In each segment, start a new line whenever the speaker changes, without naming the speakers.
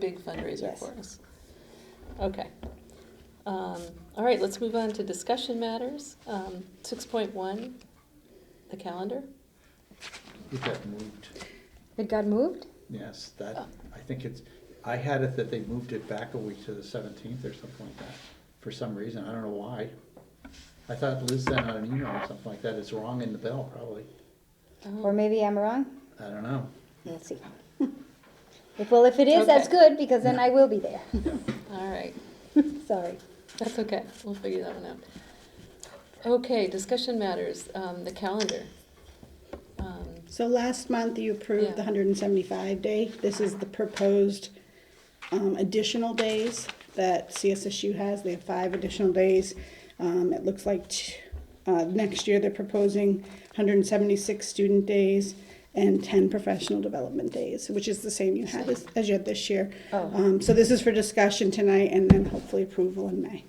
big fundraiser
Yes.
for us. Okay. Um, all right, let's move on to discussion matters. Um, six point one, the calendar.
It got moved,
It got moved?
yes, that,
Oh.
I think it's, I had it that they moved it back a week to the seventeenth or something like that, for some reason, I don't know why. I thought Liz sent out an email or something like that, it's wrong in the bill, probably,
Or maybe I'm wrong?
I don't know.
Let's see. If, well, if it is, that's
Okay.
good, because then I will be there.
All right,
Sorry.
that's okay. We'll figure that one out. Okay, discussion matters, um, the calendar. Um,
So last month you
Yeah.
approved the hundred and seventy-five day. This is the proposed um, additional days that CSSU has. They have five additional days. Um, It looks like t- uh, next year they're proposing hundred and seventy-six student days and ten professional development days, which is the same you had as, as you had this year.
Oh.
Um, So this is for discussion tonight and then hopefully approval in May.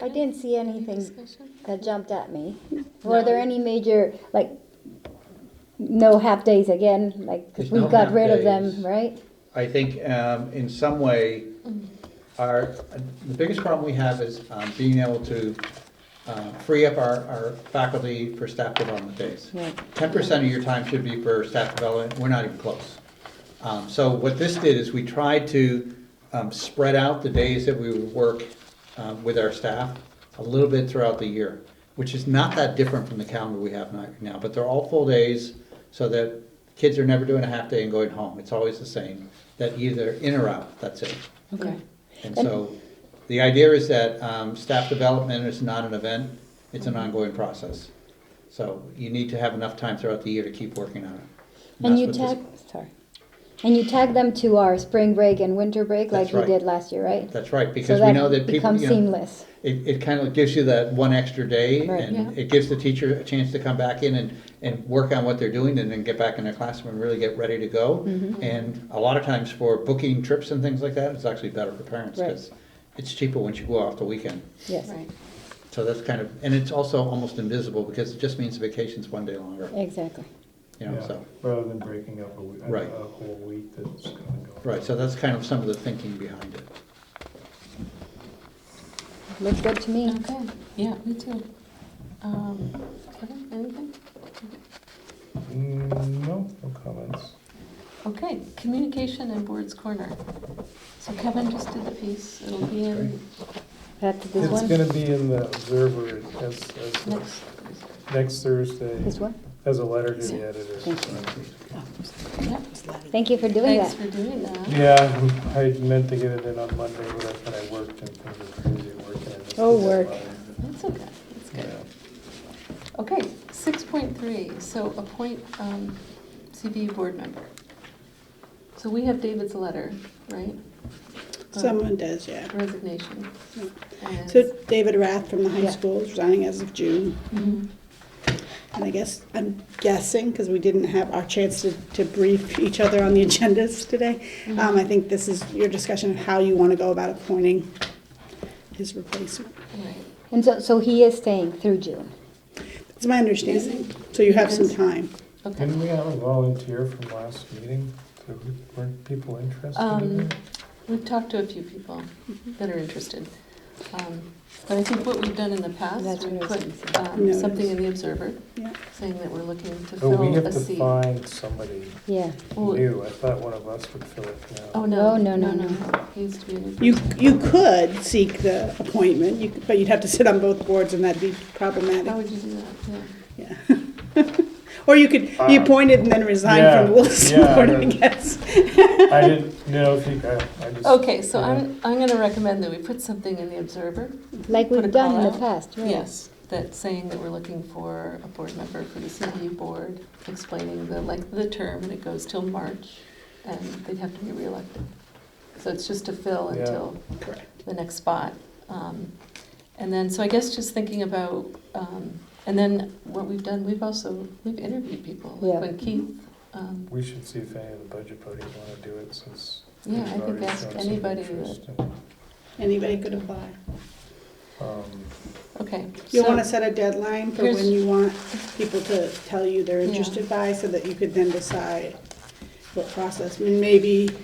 I didn't see
any
anything
discussion?
that jumped at me. Were there any major, like, no half-days again, like, 'cause
There's
we
no
got rid of them,
half-days.
right?
I think um, in some way, our, the biggest problem we have is um, being able to uh, free up our, our faculty for staff development days.
Right.
Ten percent of your time should be for staff development, we're not even close. Um, So what this did is we tried to um, spread out the days that we would work um, with our staff a little bit throughout the year, which is not that different from the calendar we have right now, but they're all full days so that kids are never doing a half day and going home. It's always the same, that either in or out, that's it.
Okay,
And so the idea is that um, staff development is not an event, it's an ongoing process. So you need to have enough time throughout the year to keep working on it.
And
that's
you
what this-
tag, sorry. And you tag them to our spring break and winter break like
That's
we
right.
did last year, right?
That's right, because we know that people,
becomes
you know,
seamless.
it, it kind of gives you that one extra day
Right.
and
Yeah.
it gives the teacher a chance to come back in and, and work on what they're doing and then get back in their classroom and really get ready to go.
Mm-hmm.
And a lot of times for booking trips and things like that, it's actually better for parents
Right.
because it's cheaper once you go off the weekend.
Yes,
right.
So that's kind of, and it's also almost invisible because it just means the vacation's one day longer,
exactly.
you know,
Yeah,
so.
Rather than breaking up a week, a
Right.
a whole week that's gonna go.
Right, so that's kind of some of the thinking behind it.
Looks good to me.
Okay, yeah, me too. Um, Kevin, anything?
Mm, No, no comments.
Okay, communication and boards corner. So Kevin just did the piece, it'll be in
Pat, did this
It's
one?
gonna be in the Observer as, as,
next.
of next
This
Thursday,
one?
as a letter to the editor.
Thank
Yep.
Thank you for doing
Thanks for
that.
doing that.
Yeah, I meant to get it in on Monday, but that's when I worked and things were busy working. I missed
Oh,
the
work.
deadline.
That's okay, that's good.
Yeah.
Okay, six point three, so appoint um, CBU board member. So we have David's letter, right? Uh,
Someone does, yeah.
Resignation.
Yeah.
And-
So David Rath from the high
Yeah.
school is resigning as of June.
Mhm.
And I guess, I'm guessing, because we didn't have our chance to, to brief each other on the agendas today, um, I think this is your discussion of how you want to go about appointing his replacement.
Right.
And so, so he is staying through June.
It's my understanding, so you have some time.
Okay.
Didn't we have a volunteer from last meeting? So Weren't people interested in
Um,
it?
We've talked to a few people that are interested. Um, But I think what we've done in the past,
That's
we
what I was gonna
put
say.
um,
Notice.
something in the Observer
Yeah.
saying that we're looking to
Oh, we
fill
have
a
to
seat.
find somebody
Yeah.
Well,
new. I thought one of us would fill it now.
Oh, no.
Oh, no, no,
He used to be a new
You,
person.
you could seek the appointment, you could- but you'd have to sit on both boards, and that'd be
How
problematic.
would you do that? Yeah.
Yeah. Or you could be
Uh,
appointed and then resign from the
yeah,
Wilson
yeah,
Board,
I
I
don't-
guess.
I didn't know if you, I, I just.
Okay, so
yeah.
I'm, I'm gonna recommend that we put something in the Observer.
Like
Put a
we've done in
call
the
out.
past, right?
Yes, that's saying that we're looking for a board member for the CBU board, explaining the length of the term, and it goes till March, and they'd have to be reelected. So it's just to fill
Yeah.
until
Correct.
the next spot. Um, And then, so I guess just thinking about, um, and then what we've done, we've also, we've interviewed people,
Yeah.
like when Keith, um,
We should see if any of the budget buddies wanna do it since.
yeah,
we've
I think
already
ask
shown some
anybody that,
interest in-
Anybody could apply.
um,
okay.
You'll
so-
want to set a deadline for
Here's-
when you want people to tell you they're
Yeah.
interested by, so that you could then decide what process, and maybe